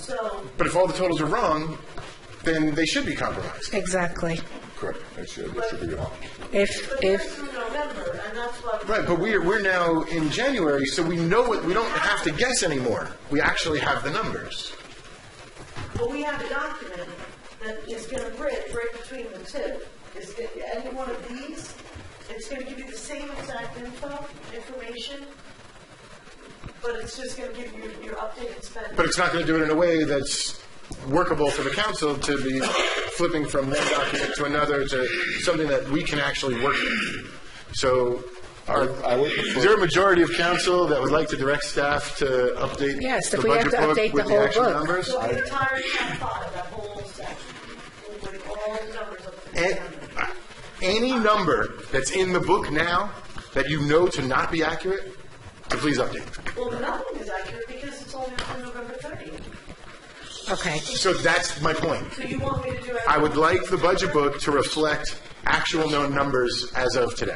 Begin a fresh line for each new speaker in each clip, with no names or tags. So,
But if all the totals are wrong, then they should be compromised.
Exactly.
Correct, that should, that should be wrong.
If,
but that's
if,
through November, and that's what.
Right, but we're, we're now in January, so we know what, we don't have to guess anymore. We actually have the numbers.
Well, we have a document that is going to bridge right between the two. It's, go- any one of these, it's going to give you the same exact info, information, but it's just going to give you your updated spending.
But it's not going to do it in a way that's workable for the council to be flipping from one document to another to something that we can actually work with. So, are,
I would prefer-
is there a majority of council that would like to direct staff to update
Yes,
the
if we have
budget
to
book
update
with
the
the
whole
actual
book.
numbers?
So the entire top five, that whole section, with all the numbers of the
A- any number that's in the book now that you know to not be accurate, to please update.
Well, nothing is accurate because it's only up to November 30th.
okay,
So that's my point.
So you want me to do everything?
I would like the budget book to reflect actual known numbers as of today.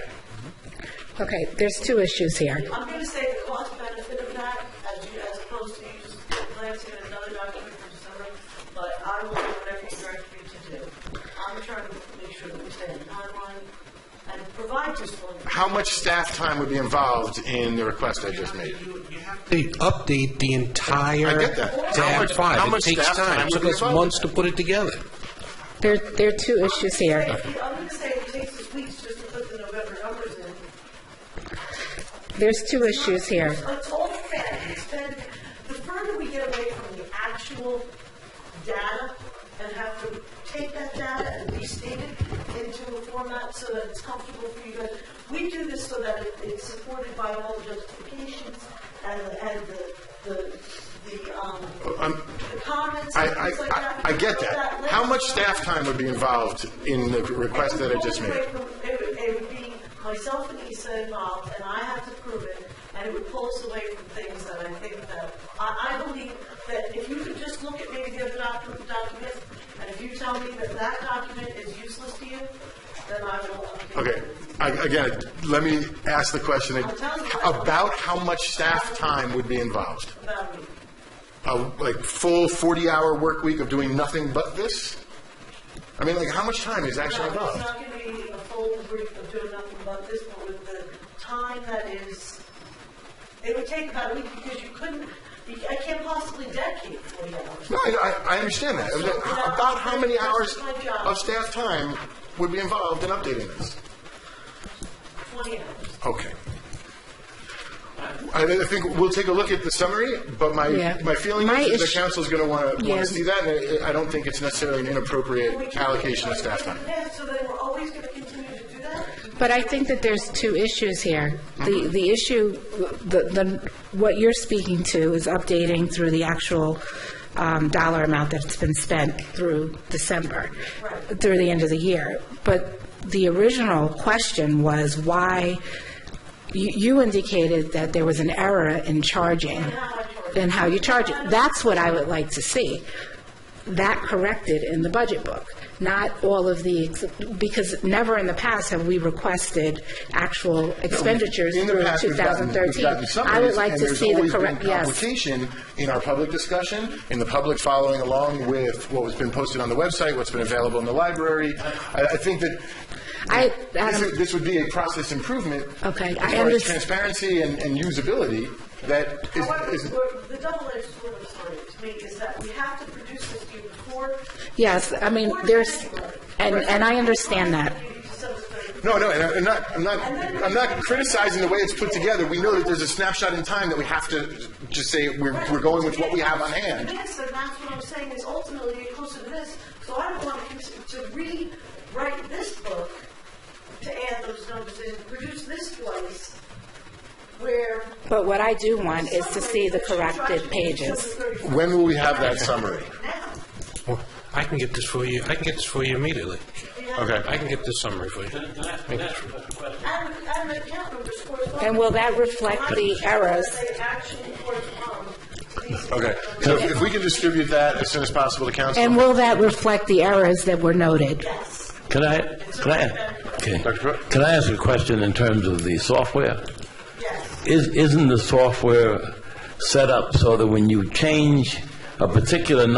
okay, there's two issues here.
I'm going to say the cost benefit of that, as you, as opposed to you just glancing at another document from December, but I will do whatever you direct me to do. I'm trying to make sure that we stay in timeline and provide useful.
How much staff time would be involved in the request I just made?
They update the
I
entire
get that. How
tab
much- how
five. It
much
takes
staff time
time. It took
would be
us
involved?
months to put it together.
There, there are two issues here.
I'm going to say it takes us weeks just to put the November numbers in.
There's two issues here.
It's all fed, it's fed, the further we get away from the actual data and have to take that data and restate it into a format so that it's comfortable for you guys. We do this so that it- it's supported by all the justifications and, the- and the, the, the, um,
Um,
the comments
I,
and
I,
things like
I-
that.
I get
So
that.
list-
How much staff time would be involved in the request that I just made?
It would- It would be myself and Issa involved, and I have to prove it, and it would pull us away from things that I think that, I, I believe that if you could just look at maybe the other doc- document, and if you tell me that that document is useless to you, then I will. um,
Okay, I- again, let me ask the question ag- about how much staff time would be involved?
About me.
A like full 40-hour work week of doing nothing but this? I mean, like, how much time is actually
No, It's
involved?
not going to be a full brief of doing nothing about this, but with the time that is, it would take about a week because you couldn't, you- I can't possibly dedicate 40 hours.
No, I, I- I understand that. About how many hours of staff time would be involved in updating this?
20 hours.
Okay. I I think we'll take a look at the summary, but my,
Yeah.
my feeling
My
is the
issue-
council's going to want to,
Yeah.
want to see that, and I I don't think it's necessarily an
We
inappropriate
can-
allocation of staff time.
Yeah, so then we're always going to continue to do that.
But I think that there's two issues here. The, the issue, the, the, what you're speaking to is updating through the actual um, dollar amount that's been spent through December, through the end of the year. But the original question was why, you, you indicated that there was an error in charging and how you charge it. That's what I would like to see that corrected in the budget book, not all of the, ex- because never in the past have we requested actual expenditures
In the
through
past, we've gotten- we've
2013.
gotten
I would
summaries,
like
and
to
there's
see the
always been
correct, yes.
complication in our public discussion, in the public following along with what has been posted on the website, what's been available in the library. I, I think that
I,
this
Adam,
would- this would be a process improvement.
Okay,
As
I
far as
underst-
transparency and, and usability, that
However,
is, is,
we're- the double-edged sword of story to me is that we have to produce this to you before.
yes, I mean, there's, and, and I understand that.
No, no, and I- I'm not, I'm not, I'm not criticizing the way it's put together. We know that there's a snapshot in time that we have to just say we're, we're going with what we have on hand.
This, and that's what I'm saying, is ultimately you're closer to this, so I don't want to cons- to rewrite this book to add those numbers in, produce this twice, where.
But what I do want is to see the corrected pages.
When will we have that summary?
Now,
Well, I can get this for you, I can get this for you immediately. I can get this summary for you. Thank you.
and, and the account numbers correspond.
And will that reflect the errors?
They actually correspond to these.
Okay, so if we can distribute that as soon as possible to council.
And will that reflect the errors that were noted?
Can I, can I, okay. Can I ask a question in terms of the software?
Yes.
Is, isn't the software set up so that when you change a particular